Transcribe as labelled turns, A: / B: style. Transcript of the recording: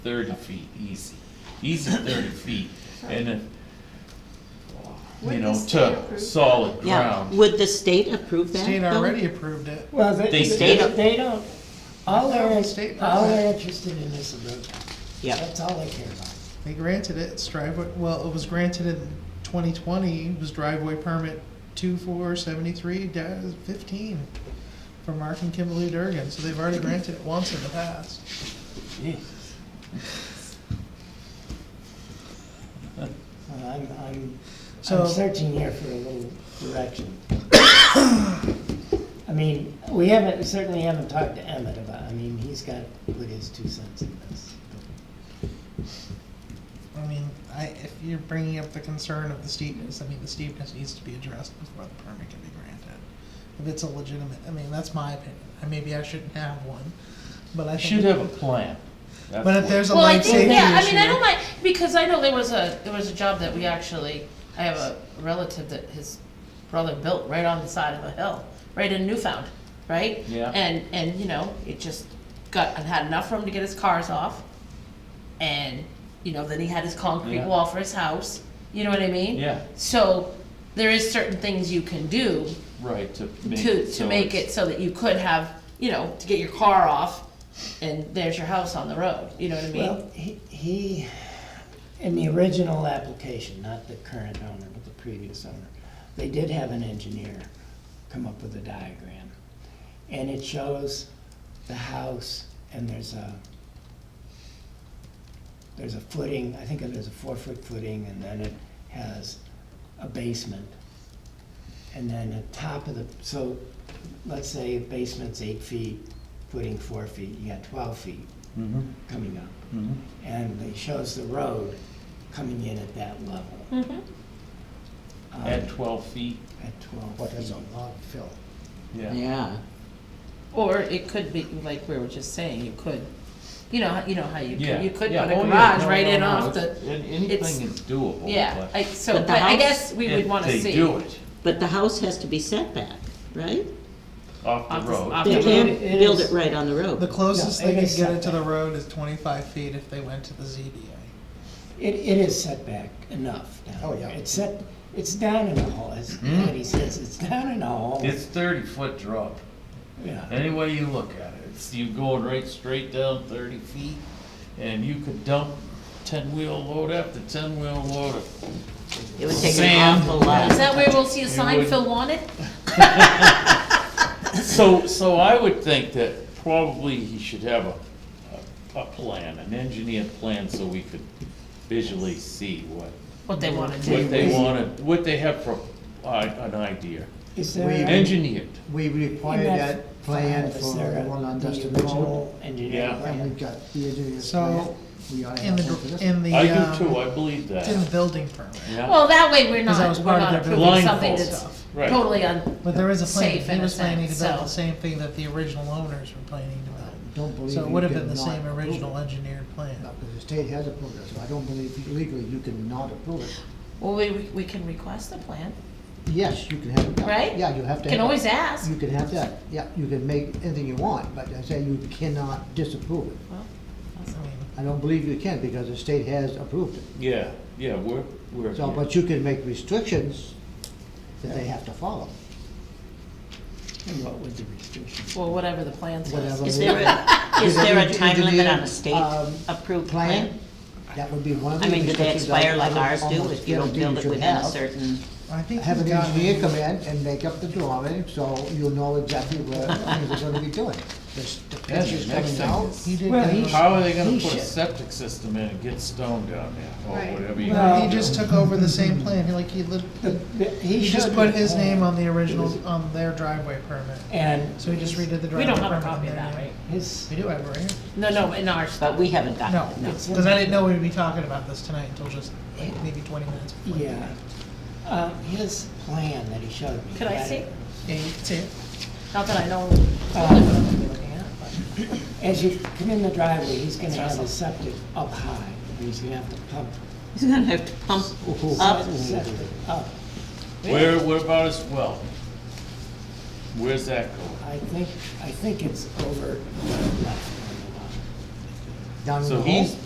A: thirty feet, easy, easy thirty feet, and then, you
B: Would
A: know,
B: this be
A: to
B: approved?
A: solid
C: Yeah,
A: ground.
C: would the state approve that?
D: State
C: though?
D: already approved it.
E: Well,
A: They
E: they,
A: stayed
C: up-
E: they don't, all they're,
D: The state
E: all
D: knows
E: they're interested in is the road.
C: Yeah,
E: That's all they care about.
D: They granted it, it's driveway, well, it was granted in twenty twenty, it was driveway permit two four seventy-three fifteen for Mark and Kimberly Durgan, so they've already granted it once in the past.
E: Jesus. Well, I'm, I'm,
D: So-
E: I'm searching here for a little direction. I mean, we haven't, certainly haven't talked to Emmett about, I mean, he's got, to put his two cents in this.
D: I mean, I, if you're bringing up the concern of the steepness, I mean, the steepness needs to be addressed before the permit can be granted. If it's a legitimate, I mean, that's my opinion, I maybe I shouldn't have one, but I
A: I
D: think.
A: should have a plan. That's
D: But if
A: what-
D: there's a
B: Well, I
D: life safety
B: think,
D: issue.
B: yeah, I mean, I don't mind, because I know there was a, there was a job that we actually, I have a relative that his brother built right on the side of a hill, right in Newfound, right?
A: Yeah.
B: And, and, you know, it just got, and had enough room to get his cars off, and, you know, then he had his concrete
A: Yeah.
B: wall for his house, you know what I mean?
A: Yeah.
B: So, there is certain things you can do
A: Right, to make
B: to,
A: it
B: to
A: so
B: make
A: it's-
B: it so that you could have, you know, to get your car off, and there's your house on the road, you know what I mean?
E: Well, he, he, in the original application, not the current owner, but the previous owner, they did have an engineer come up with a diagram. And it shows the house and there's a, there's a footing, I think it is a four-foot footing, and then it has a basement. And then the top of the, so let's say basement's eight feet, footing four feet, you got twelve feet
A: Mhm,
E: coming up
F: Mm-hmm.
A: mhm.
E: and it shows the road coming in at that level. Um,
A: Mm-hmm. At twelve feet,
E: At twelve.
F: But there's a
E: feet.
F: lot of fill.
A: yeah.
C: yeah,
B: Or it could be, like we were just saying, you could, you know, you know how you
A: Yeah.
B: could, you could put
A: yeah.
B: a
A: Oh, yeah.
B: garage
A: No,
B: right
A: no,
B: in
A: no,
B: off the,
A: it's- an- Anything is doable.
B: yeah,
A: but
B: I, so,
C: But
B: but
C: the
B: I
C: house-
B: guess we would
A: if
B: wanna
A: They
B: see.
A: do it
C: but the house has to be set back, right?
A: off
B: Off
A: the
B: the-
A: road.
B: off
C: They
B: the
C: can't
E: road. It
C: build it
E: is-
C: right on the
D: The
C: road.
D: closest
E: No,
D: they
E: it
D: could
E: is
D: get it to
E: setback.
D: the road is twenty-five feet if they went to the ZBA.
E: It, it is set back enough down
F: Oh,
E: there.
F: yeah. Mm-hmm.
E: It's set, it's down in a hole, as Patty says, it's down in a hole.
A: It's thirty foot drop.
E: Yeah,
A: Any way you look at it, it's you going right straight down thirty feet, and you could dump ten-wheel load after ten-wheel load. of-
C: It would take an
A: Sand.
C: awful
B: Is
C: lot.
B: that where we'll see a
A: You
B: sign
A: would-
B: Phil wanted?
A: So, so I would think that probably he should have a, a, a plan, an engineered plan, so we could visually see what,
B: What they wanna
A: what
B: do.
A: they wanted, what they have for, uh, an idea.
E: is
F: We-
E: there?
A: Engineered,
F: We required
E: in
F: that plan
E: file,
F: for
E: is there
F: the one on
E: the
F: Dustin Road,
E: original engineer
A: Yeah.
F: and
E: plan?
F: we've got the engineer's
D: So,
F: plan. We ought to
D: In
F: have one for
D: the,
F: this.
D: in the,
A: I do too,
D: um,
A: I believe
D: it's in the
A: that,
D: building permit.
A: yeah,
B: Well, that way we're
D: Cause that
B: not,
D: was
B: we're
D: part of
B: not
D: their
B: approving something
A: blindfold
B: that's
D: stuff.
A: Right.
B: totally un,
D: But there is a plan,
B: Safe in
D: he
B: a
D: was planning to
B: sense,
D: build
B: so-
D: the same thing that the original owners were planning to build.
F: I Don't believe
D: So it
F: you
D: would have been
F: could
D: the
F: not
D: same
F: approve
D: original
F: it.
D: engineered plan.
F: No, because the state has approved it, so I don't believe legally you can not approve it.
B: well, we, we can request a plan,
F: Yes, you can have it. done.
B: Right?
F: Yeah, you have to.
B: can
F: have it.
B: always ask.
F: You can have that, yeah, you can make anything you want, but I say you cannot disapprove it.
B: Well,
D: I
B: that's-
D: mean,
F: I don't believe you can, because the state has approved it.
A: yeah, yeah, we're, we're.
F: So, but you can make restrictions that they have to follow.
E: And what would the restrictions?
B: Well, whatever the plan says.
F: Whatever.
C: Is there a, is
F: Did
C: there a
F: they-
C: time
F: did they,
C: limit on a
F: um,
C: state approved plan?
F: Plan, that would be one of the
C: I mean, do
F: restrictions.
C: they expire like
F: would
C: ours do
F: almost
C: if you don't
F: guarantee
C: build it
F: should
C: within a
F: have.
C: certain?
D: I think
F: Have
D: he's
F: an
D: got-
F: engineer come in and make up the drawing, so you'll know exactly what things are gonna be doing. The s- the
A: Yeah, the
F: pictures
A: next
F: coming
A: thing
F: out.
A: is-
D: He did,
E: Well,
D: that.
E: he
A: How are they
E: He
A: gonna put a
E: should.
A: septic system in and get stone down there, or
B: Right.
A: whatever you.
D: No, he
E: Well-
D: just took over the same plan, he like, he lit,
E: The- the-
D: he just
E: should
D: put his
E: have-
D: name on the original, on their driveway permit.
E: And
D: So he just redid the driveway permit.
B: We don't have a copy
D: in
B: of
D: there,
B: that,
D: yeah.
B: right?
E: his,
D: We do have it right here.
B: No, no, in our stuff.
C: But we haven't gotten
D: No,
C: it, no.
D: because I didn't know we'd be talking about this tonight until just like maybe twenty minutes before.
E: yeah, uh, his plan that he showed me.
B: Could I
E: had-
B: see?
D: Yeah, you can see it.
B: Not that I know.
E: Um, As you come in the driveway, he's gonna have the septic up high, and he's gonna have to pump
C: He's gonna have to pump up,
E: the septic up.
A: Where, where about as well? Where's that going?
E: I think, I think it's over left on the lot.
F: Down in
A: So
F: the hole.
A: he's